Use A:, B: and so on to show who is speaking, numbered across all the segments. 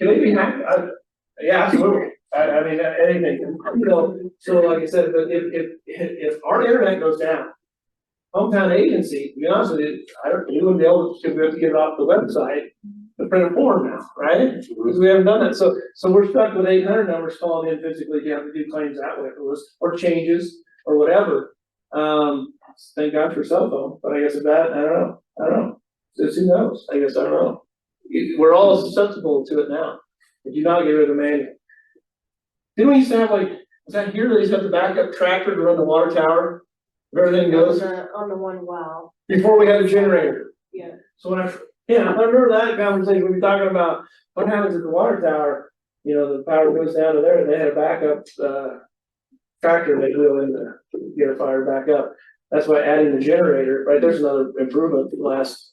A: Can they be hacked? I, yeah, absolutely. I, I mean, anything, you know, so like I said, but if, if, if our internet goes down. Hometown agency, to be honest with you, I don't, you wouldn't be able to, we have to get it off the website, the printed form now, right? Because we haven't done that, so, so we're stuck with eight hundred numbers calling in physically, you have to do claims that way, if it was, or changes, or whatever. Um, thank God for cell phone, but I guess if that, I don't know, I don't know, just who knows, I guess, I don't know. You- We're all susceptible to it now, if you not get rid of the manual. Didn't we used to have like, was that here, they used to have the backup tractor to run the water tower? If everything
B: On
A: goes,
B: the, on the one well,
A: before we had a generator.
B: yeah,
A: So when I, yeah, I remember that conversation, we were talking about what happens at the water tower, you know, the power goes down to there, and they had a backup, uh. Tractor they wheel in to get a fire back up, that's why adding the generator, right, there's another improvement, the last,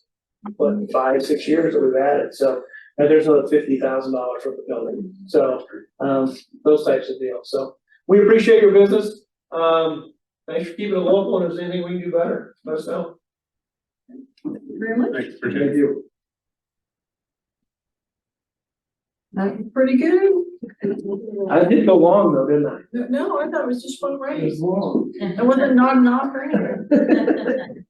A: what, five, six years that we've added, so. And there's another fifty thousand dollars for the building, so, um, those types of deals, so, we appreciate your business, um. Thanks for keeping it local, and if there's anything we can do better, let us know.
C: Very much.
D: Thanks, appreciate it.
A: you.
C: That was pretty good.
A: I did go long though, didn't I?
C: No, I thought it was just one race.
A: long.
C: It wasn't not not or anything.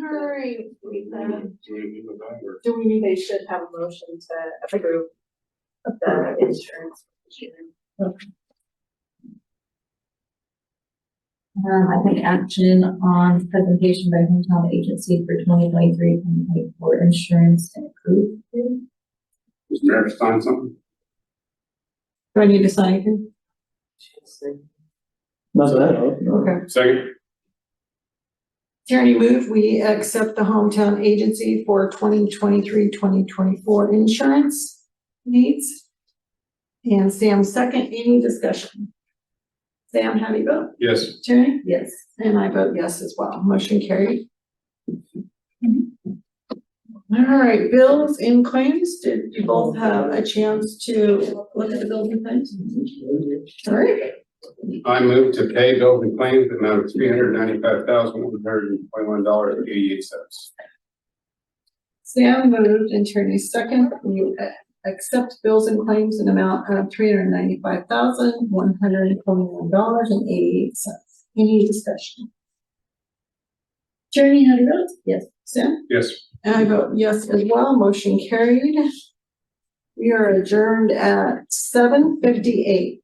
B: all right, we, uh,
D: Do we need to go
B: do we need, they should have a motion to approve the insurance.
E: Um, I think action on presentation by hometown agency for 2023-2024 insurance and approved. Do
D: Mr. Mayor, sign something?
C: Do I need to sign anything?
A: Not that, I don't know.
C: Okay.
D: Second?
C: Tierney move, we accept the hometown agency for 2023-2024 insurance needs. And Sam second, any discussion? Sam, how do you vote?
D: Yes.
C: Tierney?
E: Yes.
C: And I vote yes as well. Motion carried. All right, bills and claims. Did you both have a chance to look at the bills and claims? All right,
D: I move to pay bills and claims in the amount of three hundred ninety-five thousand, one hundred and twenty-one dollars and eighty-eight cents.
C: Sam moved and Tierney second. We uh, accept bills and claims in amount of three hundred ninety-five thousand, one hundred and twenty-one dollars and eighty-eight cents. Any discussion? Tierney, how do you vote?
E: Yes.
C: Sam?
D: Yes.
C: And I vote yes as well, motion carried. We are adjourned at seven fifty-eight.